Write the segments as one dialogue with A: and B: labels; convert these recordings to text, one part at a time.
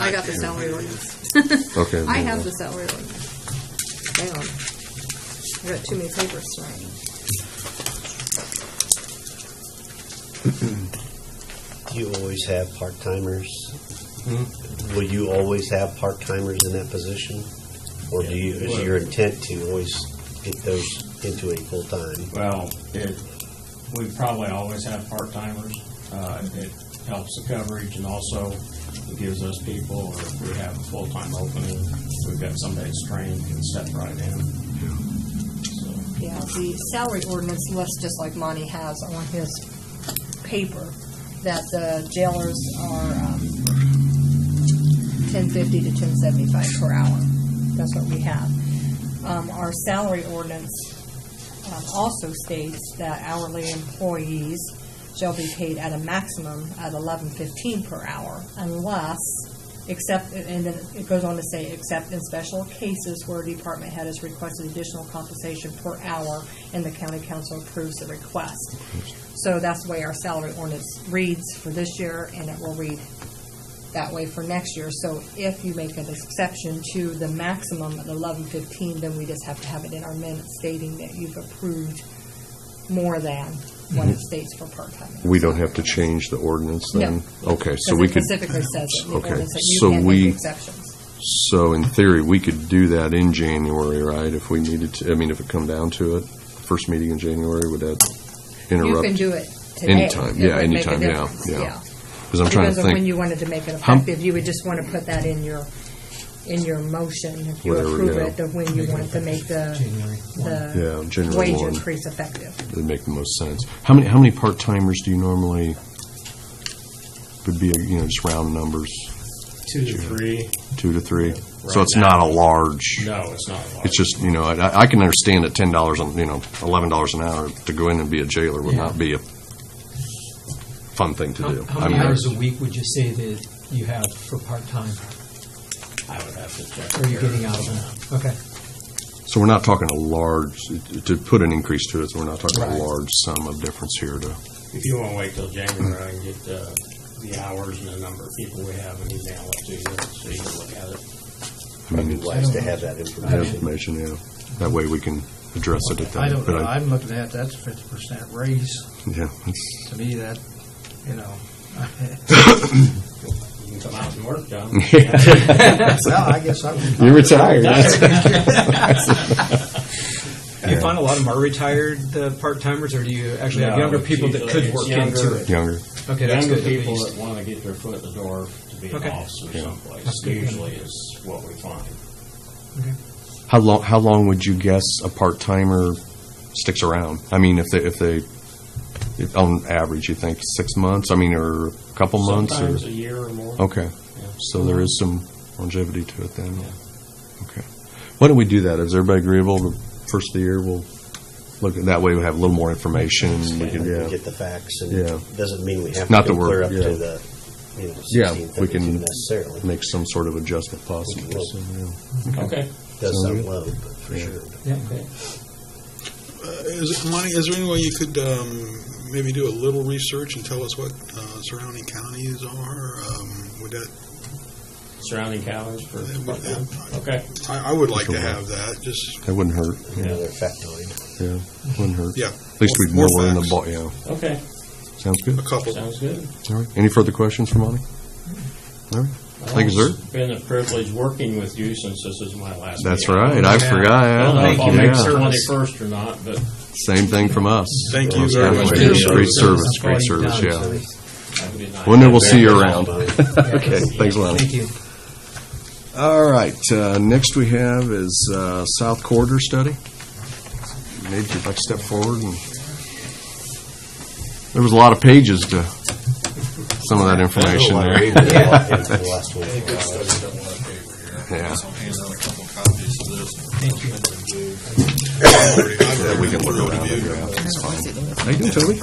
A: I got the salary ordinance.
B: Okay.
A: I
B: then,
A: have
B: uh,
A: the salary ordinance. Damn. I got too many papers tonight.
C: You always have part-timers? Will you always have part-timers in that position? Or do you, is your intent to always get those into a full-time?
D: Well, it, we probably always have part-timers. Uh, It helps the coverage and also it gives us people, or if we have a full-time opening, we've got somebody that's trained can step right in. So,
A: Yeah, the salary ordinance lists, just like Monty has on his paper, that the jailers are, um, ten fifty to ten seventy-five per hour. That's what we have. Um, our salary ordinance, um, also states that hourly employees shall be paid at a maximum at eleven fifteen per hour unless, except, and then it goes on to say, except in special cases where a department head has requested additional compensation per hour and the county council approves the request. So that's the way our salary ordinance reads for this year and it will read that way for next year. So if you make an exception to the maximum of eleven fifteen, then we just have to have it in our minutes stating that you've approved more than
B: Mm-hmm.
A: what it states for part-time.
B: We don't have to change the ordinance then? Okay, so we
A: Because
B: could,
A: it specifically says it, in the
B: Okay,
A: ordinance that you
B: so
A: can
B: we-
A: make exceptions.
B: so in theory, we could do that in January, right? If we needed to, I mean, if it come down to it, first meeting in January, would that
A: You can
B: interrupt?
A: do it today.
B: Anytime, yeah,
A: It would make a
B: anytime, yeah,
A: difference,
B: yeah. Because I'm trying
A: Depends
B: to
A: on when
B: think,
A: you wanted to make it
B: How-
A: effective. You would just want to put that in your, in your motion, if you
B: Whatever,
A: approve
B: yeah.
A: it, of when you wanted to make the,
B: yeah,
A: the
B: January
A: wage
B: 1,
A: increase effective.
B: it'd make the most sense. How many, how many part-timers do you normally, would be, you know, just round numbers,
D: Two to three,
B: two to three? So
D: Right
B: it's not a
D: now.
B: large.
D: no, it's not large.
B: It's just, you know, I, I can understand that ten dollars, you know, eleven dollars an hour to go in and be a jailer would
E: Yeah.
B: not be a fun thing to do.
E: How how
B: I
E: many
B: mean,
E: hours a week would you say that you have for part-time?
D: I would have to check.
E: Or are you getting out of it? Okay.
B: So we're not talking a large, to put an increase to it, so we're not talking a
E: Right.
B: large sum of difference here to,
D: If you want to wait till January, I can get the, the hours and the number of people we have and email it to you, so you can look at it.
B: I
C: It'd be
B: mean,
C: wise to have that
B: that
C: information.
B: information, yeah. That way we can address it at that.
F: I don't
B: but
F: know, I'm looking at, that's a fifty percent raise,
B: Yeah, it's-
F: to me, that, you know.
D: You can come out and work, John.
F: Well, I guess I would.
B: You're retired.
E: You find a lot of them are retired uh, part-timers, or do you actually have
D: No,
E: younger people that could
D: it's
E: work
D: younger.
E: into it?
B: Younger.
E: Okay, that's
D: Younger
E: good. at
D: people
E: least.
D: that want to get their foot in the door to be an
E: Okay.
D: officer someplace,
E: That's good.
D: usually is what we find.
B: How long, how long would you guess a part-timer sticks around? I mean, if they, if they, if on average, you think six months? I mean, or a couple months? or- Oh.
D: Sometimes a year or more.
B: Okay,
D: Yeah.
B: so there is some longevity to it then?
D: Yeah.
B: Okay. Why don't we do that? Is everybody agreeable? The First of the year, we'll look, at that way we have a little more information. We can,
C: We
B: yeah.
C: Get the facts, and
B: Yeah.
C: it doesn't mean we have
B: Not
C: to
B: that
C: go clear
B: we're-
C: up to
B: yeah.
C: the, you know,
B: Yeah,
C: sixteen,
B: we can-
C: thirty-two necessarily.
B: Make some sort of adjustment possible. so, yeah.
D: Okay.
C: Does
B: Sounds
C: sound
B: good.
C: low, but for
B: Yeah.
C: sure.
E: Yeah.
G: Uh, Is, Monty, is there any way you could um, maybe do a little research and tell us what uh, surrounding counties are? Um, Would that,
D: Surrounding counties for,
G: that would- that-
D: okay.
G: I I would like to have that, just,
B: That wouldn't hurt,
C: Another factoid.
B: yeah, wouldn't hurt.
G: yeah.
B: At least we'd know
G: More
B: we're in the
G: facts.
B: ball, yeah.
D: Okay,
B: Sounds good.
G: A couple.
D: sounds good.
B: All right. Any further questions for Monty? All right. Thank you, sir.
D: It's been a privilege working with you since this is my last meeting.
B: That's right. I forgot.
D: I don't know if
B: yeah.
D: I'll make
B: Yeah.
D: the 21st or not, but
B: Same thing from us.
G: Thank you very much.
B: Great
G: Appreciate it.
B: service, great service, yeah.
D: I did not.
B: Well, then we'll see you
C: Very
B: around.
C: well done.
B: Okay, thanks, Lonnie.
E: Thank you.
B: All right, uh, next we have is uh, South Corridor Study. Maybe if I step forward and, there was a lot of pages to some of that information there.
C: The last one.
B: Yeah,
G: That
B: we can look around the graph, it's fine. How you doing, Toby?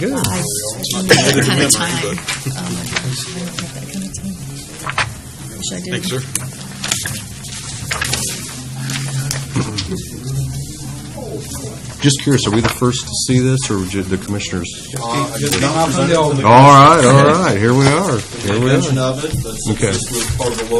B: Yeah, good.
H: kind of time.
G: But-
H: Wish I did.
G: Thanks, sir.
B: Just curious, are we the first to see this, or ju- the commissioners?
I: Not
B: All right, all right, here we are, here we are.
I: Mention of it, but since
B: Okay.
I: this was part of the